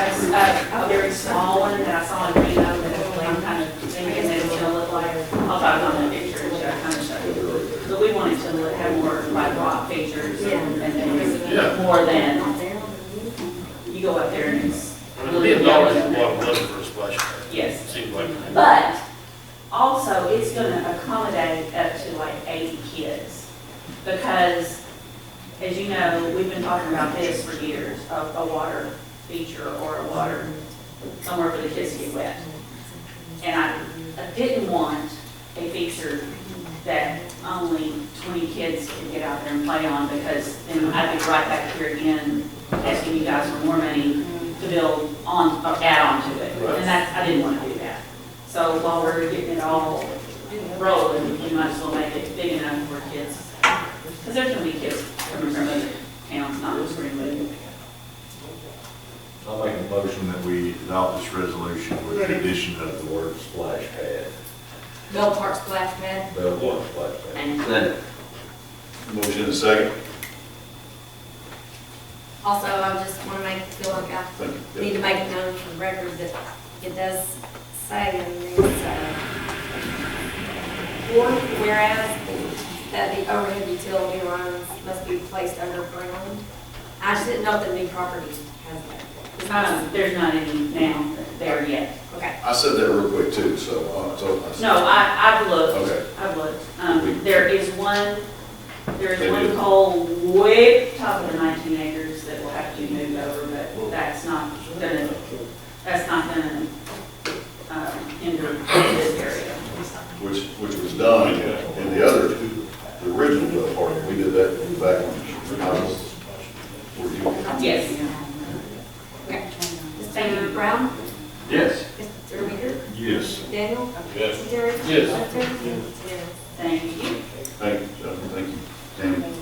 a very small one that I saw in Reno that I'm kind of thinking that it's gonna look like. I'll talk about that picture and show, kind of show you. But we wanted to look, have more like rock features and and then more than, you go up there and it's. A million dollars is a lot of money for a splash pad, Yes. seems like. But also, it's gonna accommodate up to like eighty kids. Because, as you know, we've been talking about this for years, a, a water feature or a water, somewhere for the kids to get wet. And I, I didn't want a feature that only twenty kids could get out there and play on, because then I'd be right back here again asking you guys for more money to build on, or add on to it. Right. And that's, I didn't wanna do that. So while we're getting it all rolling, we might as well make it big enough for kids. Because there's gonna be kids coming from other towns, not just Greenwood. I'll make a motion that we adopt this resolution with the addition of the word splash pad, Bell Park Splash Pad. the word splash pad. Motion in a second. Also, I just want to make, feel like I Thank you. need to make it known for the record that it does say in this, uh, or whereas that the overhead utility lines must be placed underground. I just didn't know if the new property has that. Um, there's not any now there yet. Okay. I said that real quick too, so, uh, so. I said- No, I, I've Okay. looked, I've looked. Um, there is one, there They is one do. hole way top of the nineteen acres that will have to be moved over, but that's not gonna, that's not gonna, um, hinder this area. Which, which was done in the other, the original Bell Park, we did that in the back when I was, were you? Yes. Okay. Mr. Brown? Yes. Mr. Reader? Yes. Daniel? Yes. Jerry? Yes. Yes. Thank you. Thank you, gentlemen, thank you, Tammy.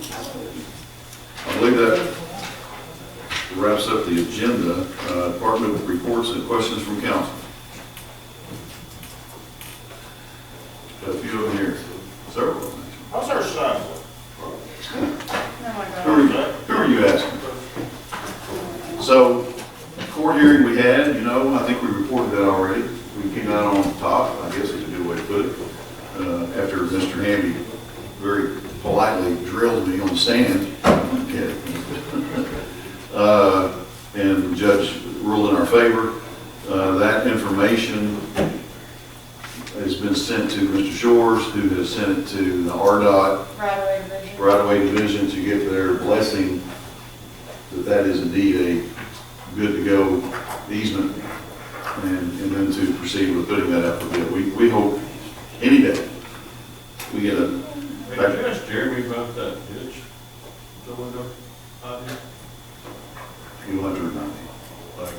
I believe that wraps up the agenda, Uh, department reports and questions from council. Got a few of them here, several of them. How's our sidewalk? Who are you, who are you asking? So, court hearing we had, you know, I think we reported that already. We came out on top, I guess is a good way to put it. Uh, after Mr. Hamby very politely drilled me on the sand. Okay. Uh, and the judge ruled in our favor. Uh, that information has been sent to Mr. Shores, who has sent it to the RDOT, Right away division. right-of-way division to get their blessing that that is indeed a good-to-go easement, and, and then to proceed with putting that up for bid. We, we hope any day we get a, Hey, did you ask Jeremy about that ditch going up out here? we will have to remind you. Like,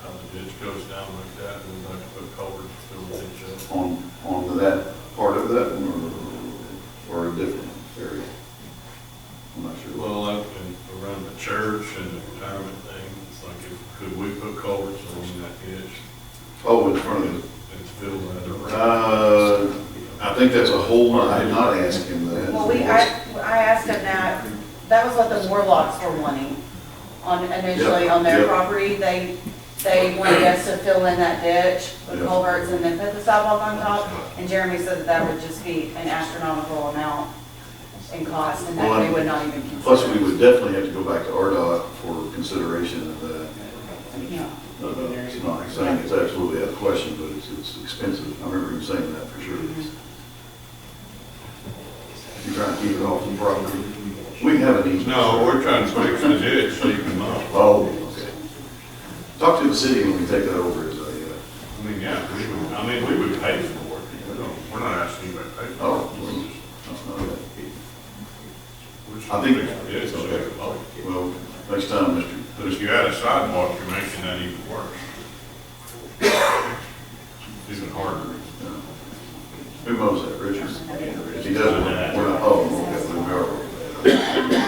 how the ditch goes down like that and like put culverts to fill the ditch on, on that part of that one or, or a different area? I'm not up? sure. Well, like in- around the church and the retirement thing, it's like, if- could we put culverts along that ditch Oh, in front of it. and fill that around? Uh, I think that's a whole, I did not ask him that. Well, we, I, I asked them that, that was what the Warlocks were wanting on, initially on Yep, their yep. property. They, they wanted us to fill in that ditch with Yep. culverts and then put the sidewalk on top. And Jeremy said that that would just be an astronomical amount in cost and that they would not even consider. Plus, we would definitely have to go back to RDOT for consideration of that. Yeah. Uh, It's not saying it's absolutely out of question, but it's, it's expensive. I remember you saying that for sure. You're trying to keep it off the property. We can have an easement. No, we're trying to fix the ditch so you can mow. Oh, okay. Talk to the city when we take that over as a, uh, I mean, yeah, we would, I mean, we would pay for it, you know, we're not asking anybody to pay for it. oh, well, that's not it. We're just- I think- we're just- It's Okay. a mow. Well, next time, Mr. But if you add a sidewalk, you're making that even worse. Even harder. uh, Who mows that, Richard? He doesn't, we're not, oh, okay, we are.